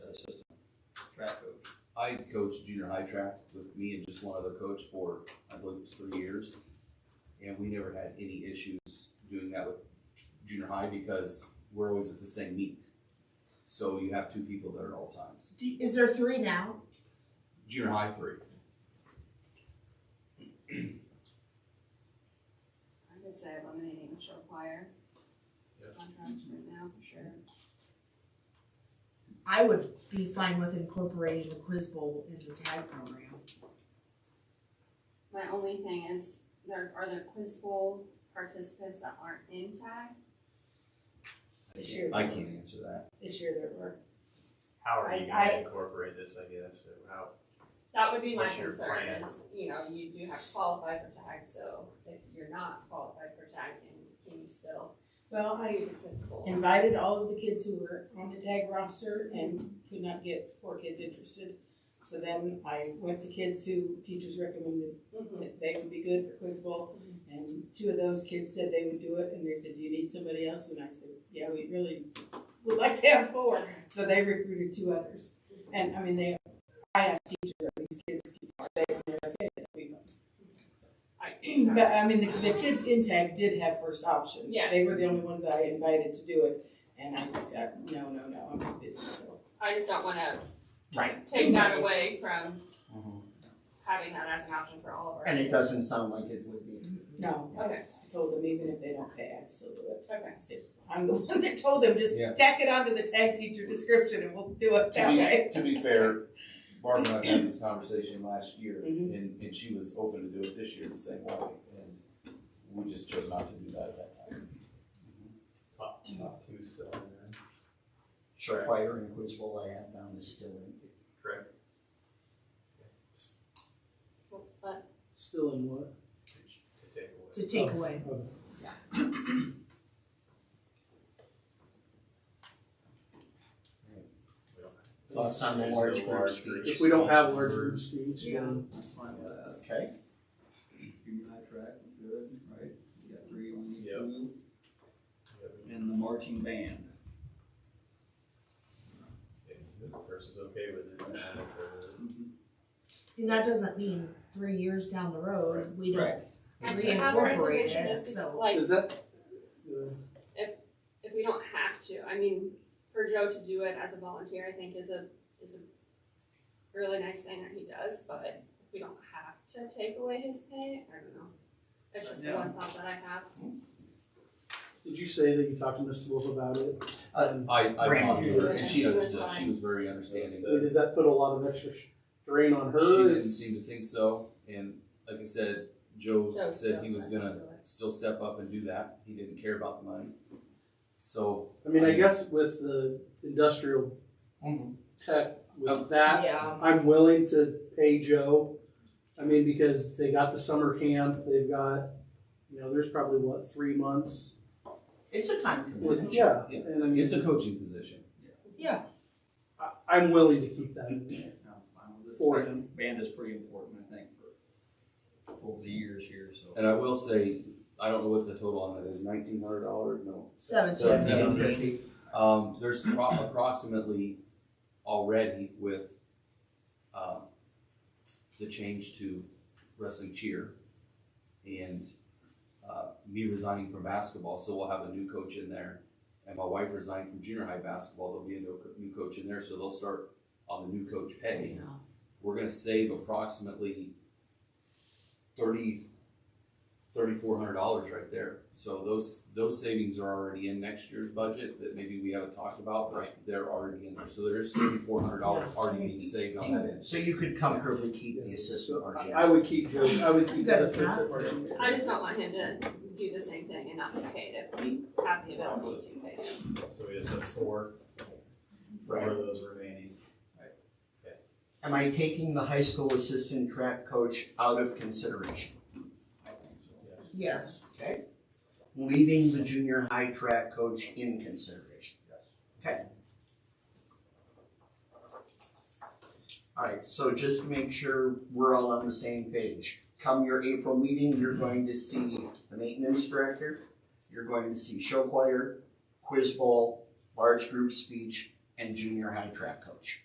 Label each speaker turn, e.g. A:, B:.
A: I coached junior high track with me and just one other coach for, I believe it was three years. And we never had any issues doing that with junior high because we're always at the same meet. So you have two people there at all times.
B: Do- Is there three now?
A: Junior high three.
C: I would say eliminating the show choir.
A: Yes.
C: Contracts right now, for sure.
B: I would be fine with incorporating the quiz bowl in the tag program.
C: My only thing is, there, are there quiz bowl participants that aren't in tag?
D: This year.
A: I can't answer that.
D: This year there were.
E: How are
D: I-
E: you
D: I-
E: gonna incorporate this, I guess, or how,
C: That would be my
E: What's your
C: concern
E: plan?
C: is, you know, you do have to qualify for tag, so if you're not qualified for tag, then can you still
D: Well, I
C: use the quiz bowl?
D: invited all of the kids who were on the tag roster and could not get four kids interested. So then I went to kids who teachers recommended
C: Mhm.
D: that they would be good for quiz bowl. And two of those kids said they would do it, and they said, "Do you need somebody else?" And I said, "Yeah, we really would like to have four. So they recruited two others, and I mean, they. I asked teachers, "Are these kids are they?" And they're like, "Yeah, we want
C: I-
D: But I mean, the, the kids in tag did have first option.
C: Yes.
D: They were the only ones I invited to do it, and I just got, no, no, no, I'm too busy, so.
C: I just don't wanna
F: Right. Mm-hmm.
C: take that away from having that as an option for all of our.
F: And it doesn't sound like it would be.
D: No,
C: Okay,
D: I told them even if they don't pay, I'd still do it.
C: okay.
D: I said, I'm the one that told them, just
A: Yeah.
D: tack it onto the tag teacher description and we'll do it
A: To
D: that way.
A: be, to be fair, Barb and I had this conversation last year
D: Mhm.
A: and, and she was open to do it this year the same way. And we just chose not to do that at that time.
E: top, top two still in there?
F: Sure.
E: Correct.
F: Choir and quiz bowl I have down is still in.
E: Correct.
C: But
G: Still in what?
E: To take away.
B: To take away.
G: Oh,
E: We don't have-
F: Thoughts on the
E: There's
F: large
E: the
F: group
E: large
F: speech?
G: If we don't have large group speech, then
F: Okay.
H: junior high track was good, right? We got three on each
E: Yep.
H: group,
E: Yeah, we-
H: and the marching band.
E: If the person's okay with it, then I don't care.
B: And that doesn't mean three years down the road, we don't
C: And to have a
B: reincorporate
C: reservation
B: it,
C: just
B: so.
C: like
G: is that? uh,
C: if we don't have to, I mean, for Joe to do it as a volunteer, I think is a is a really nice thing that he does. But if we don't have to take away his pay, I don't know. It's just
H: Yeah.
C: one thought that I have.
G: Did you say that you talked to Miss Wolf about it? Um,
F: Uh,
A: I, I
F: Brand
A: talked to her and she
C: new.
A: understood. She was very understanding.
G: I mean, Does that put a lot of extra strain on
A: She
G: her?
A: didn't seem to think so, and like I said, Joe
C: Joe
A: said he was
C: feels that
A: gonna
C: he'll do it.
A: still step up and do that, he didn't care about the money. So,
G: I mean, I guess with the industrial
F: mhm.
G: tech,
A: Oh.
G: with that,
B: Yeah.
G: I'm willing to pay Joe. I mean, because they got the summer camp, they've got, you know, there's probably what, three months?
B: It's a time
G: with- Yeah,
A: Yeah.
G: and I mean,
A: it's a coaching position.
B: Yeah.
G: I, I'm willing to keep that in there.
H: I'm fine with it.
G: For him.
H: Band is pretty important, I think, for over the years here, so.
A: And I will say, I don't know what the total on that is, nineteen hundred dollars, no.
B: Seventeen.
A: Seventeen.
F: $1,750.
A: Um, there's pro- approximately already with, um, the change to wrestling cheer and, uh, me resigning from basketball, so we'll have a new coach in there. And my wife resigned from junior high basketball, there'll be a new, co- new coach in there, so they'll start on the new coach pay. We're gonna save approximately thirty, thirty-four hundred dollars right there. So those, those savings are already in next year's budget that maybe we haven't talked about, but they're already in there. So there's thirty-four hundred dollars already being saved on that end.
F: So you could comfortably keep the assistant
G: So
F: marching.
G: I, I would keep Joe, I would keep
B: You
G: that
B: got that.
G: assistant marching. band.
C: I just don't want him to do the same thing and not be paid if we have the ability to pay him.
E: So we just have four, four
F: Right.
E: of those remaining.
F: Am I taking the high school assistant track coach out of consideration?
B: Yes.
F: Okay. Leaving the junior high track coach in consideration? Yes. Okay. All right, so just to make sure we're all on the same page. Come your April meeting, you're going to see the maintenance director, you're going to see show choir, quiz bowl, large group speech, and junior high track coach.